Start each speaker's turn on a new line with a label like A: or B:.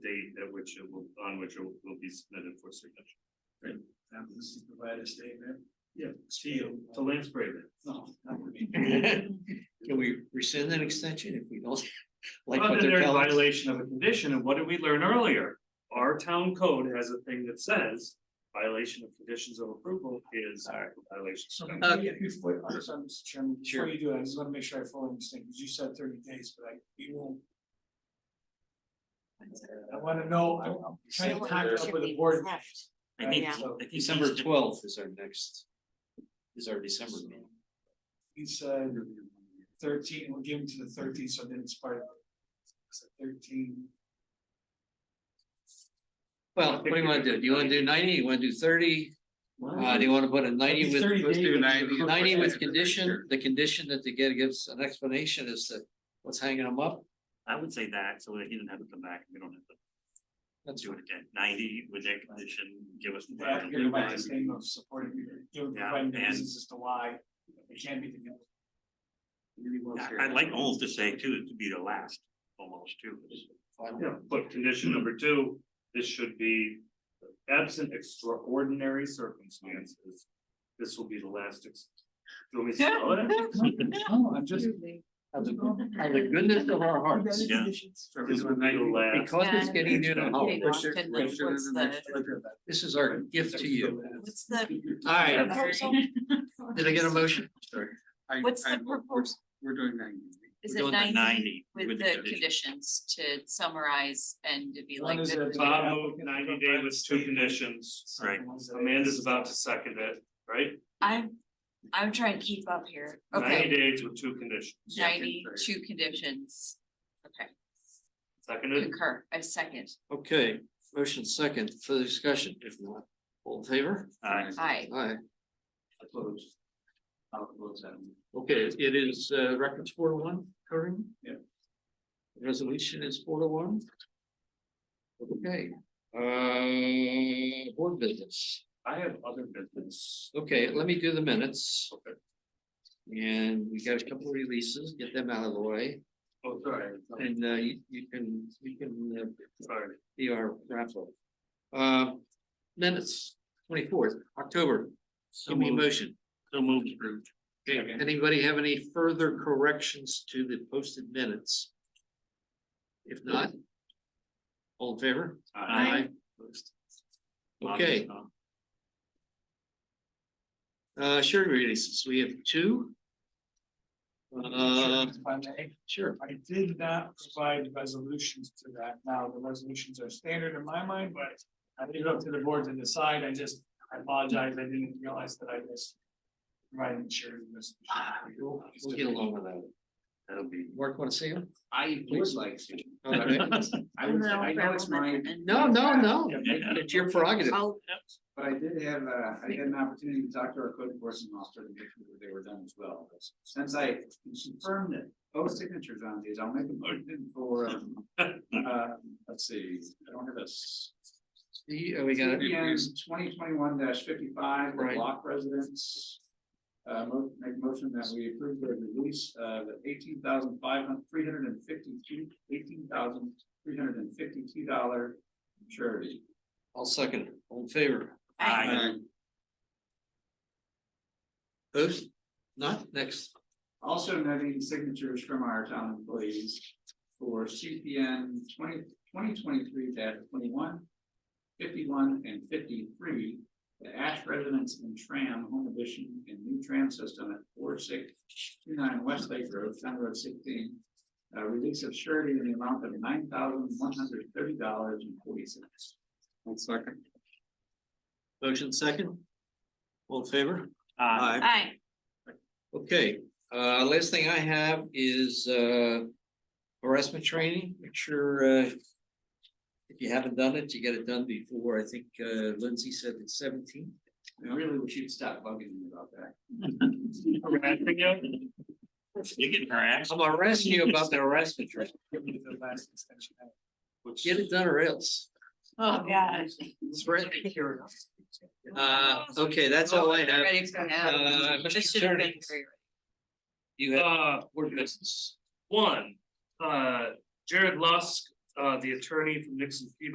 A: which it will, on which it will be submitted for signature.
B: That was the provider statement.
A: Yeah. To you, to Lance Braven.
B: No. that would be-
C: Can we rescind that extension if we don't like
A: Other
C: what
A: than they're
C: they're
A: in
C: telling us?
A: violation of a condition, and what did we learn earlier? Our town code has a thing that says violation of conditions of approval is
C: Alright.
A: violation.
B: So
A: of-
B: before
C: Okay.
B: you- before, I'm sorry, Mr. Chairman,
C: Sure.
B: before you do that, I just wanna make sure I fully understand, because you said thirty days, but I, you won't. I wanna know, I'm- I'm trying to tie it up with the board.
D: I think,
B: Yeah.
D: I think.
C: December
D: these two-
C: twelfth is our next, is our December meeting.
B: He said thirteen, we'll give him to the thirteen, so then it's part of. so Thirteen,
C: Well, what do you wanna do? Do you wanna do ninety? You wanna do thirty? Uh, do you wanna put a ninety
B: It's
C: with,
B: 30
C: let's do
B: days.
C: ninety,
B: Look,
C: 90
B: yeah,
C: with condition, the condition that they get gives an explanation as to what's hanging them up?
D: I would say that, so that he doesn't have to come back, we don't have to
C: That's
D: do it again, ninety with that condition, give us.
B: the applicant provides his name of supporting, you know,
D: Yeah,
B: providing the
D: and-
B: reasons as to why it can't be the.
D: I- I'd like almost to say too, to be the last, almost too.
C: fine.
A: Yeah, but condition number two, this should be absent extraordinary circumstances. This will be the last. ex- Do you want me to spell it?
B: No, I'm just.
C: Out of the out of the goodness of our hearts,
D: Yeah.
A: This will be the last.
C: because it's
E: Yeah.
C: getting near the
E: Getting
C: holidays,
E: lost in the- what's the-
C: this is our gift to you.
E: What's the
C: All right,
E: proposal?
C: did I get a motion? Sorry.
E: What's the proposal?
B: We're doing ninety.
E: Is
D: We're doing
E: it
D: the
E: ninety
D: 90
E: with the conditions to summarize and to be
B: One
E: like.
B: is
E: good
B: a
E: with it?
A: Bob moved ninety day with two conditions.
D: Right.
A: Amanda's about to second it, right?
E: I'm, I'm trying to keep up here.
A: Ninety
E: Okay,
A: days with two conditions.
E: ninety, two conditions. Okay,
A: Seconded,
E: concur, I second.
C: Okay, motion second for the discussion, if not, all in favor?
D: Uh,
E: Aye.
C: Aye. Okay, it is uh records four to one, Corinne?
B: Yeah.
C: Resolution is four to one. Okay, uh, board business.
A: I have other business.
C: Okay, let me do the minutes.
A: Okay.
C: And we got a couple of releases, get them out of the way,
A: Oh, sorry,
C: and uh, you you can, you can uh,
A: sorry.
C: be our wrap up. Uh, minutes, twenty-fourth, October,
D: So
C: give me a
D: moved,
C: motion.
D: so moved, approved.
C: Okay, anybody have any further corrections to the posted minutes? If not. All in favor? Opposed? Okay, uh, sure releases, we have two. Uh,
B: If I may.
C: sure,
B: I did not provide resolutions to that. Now, the resolutions are standard in my mind, but I leave it up to the board to decide. I just, I apologize. I didn't realize that I missed. Providing shared this.
C: we'll we'll get along with that.
D: That'll be.
C: Mark, wanna see him?
F: I would
C: Please.
F: like to.
C: Okay.
F: I would, I know it's mine,
C: No, no, no, it's your prerogative.
F: but I did have, uh, I had an opportunity to talk to our code enforcement officer to make sure that they were done as well. Since I confirmed that both signatures on these, I'll make a motion for, um, uh, let's see, I don't have this.
C: See, uh, we got it.
F: Twenty twenty-one fifty-five, the
C: Right.
F: block residents. Uh, mo- make a motion that we approve the release of eighteen thousand five hundred, three hundred and fifty-two, eighteen thousand, three hundred and fifty-two dollar charity.
C: I'll second, it. all in favor?
D: Aye.
C: Opposed? Not, next.
F: Also noting signatures from our town employees for CPN 20 2023 twenty-one. Fifty-one and fifty-three, the Ash residents in Tram Home Edition and new tram system at four six two nine Westlake Road, Town Road sixteen. Uh, release of surety in the amount of nine thousand one hundred thirty dollars and forty cents.
B: One second.
C: Motion second. All in favor?
D: Uh,
E: Aye.
C: Okay, uh, last thing I have is, uh, harassment training, make sure, uh. If you haven't done it, you get it done before, I think, uh, Lindsay said it's seventeen.
F: I really wish you'd stop bugging me about that.
A: Harassing you?
D: You're getting harassed.
C: I'm harassing you about the harassment training,
B: The last extension.
A: Which-
C: get it done or else.
E: Oh, God.
C: It's right here. Uh, okay, that's all I have.
E: Ready for now.
C: Uh, Mr.
E: This should have been
C: Attorney.
E: very-
C: You have
A: Uh,
C: board business.
A: one, uh, Jared Lusk, uh, the attorney from Nixon Feeble